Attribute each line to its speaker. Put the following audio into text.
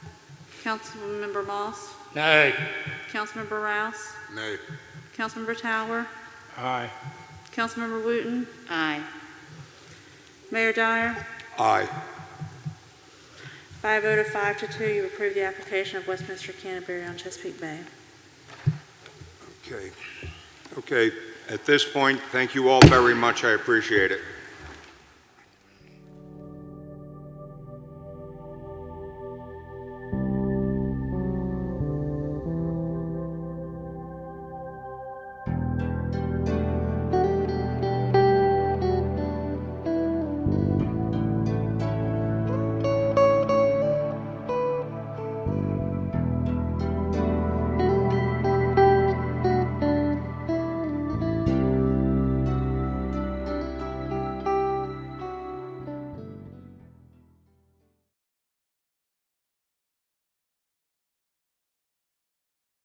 Speaker 1: Councilmember Moss,
Speaker 2: Nay.
Speaker 1: Councilmember Rouse,
Speaker 3: Nay.
Speaker 1: Councilmember Tower,
Speaker 2: Aye.
Speaker 1: Councilmember Wooten,
Speaker 4: Aye.
Speaker 1: Mayor Dyer.
Speaker 3: Aye.
Speaker 1: By a vote of five to two, you approve the application of Westminster Canterbury on Chesapeake Bay.
Speaker 3: Okay. Okay, at this point, thank you all very much, I appreciate it.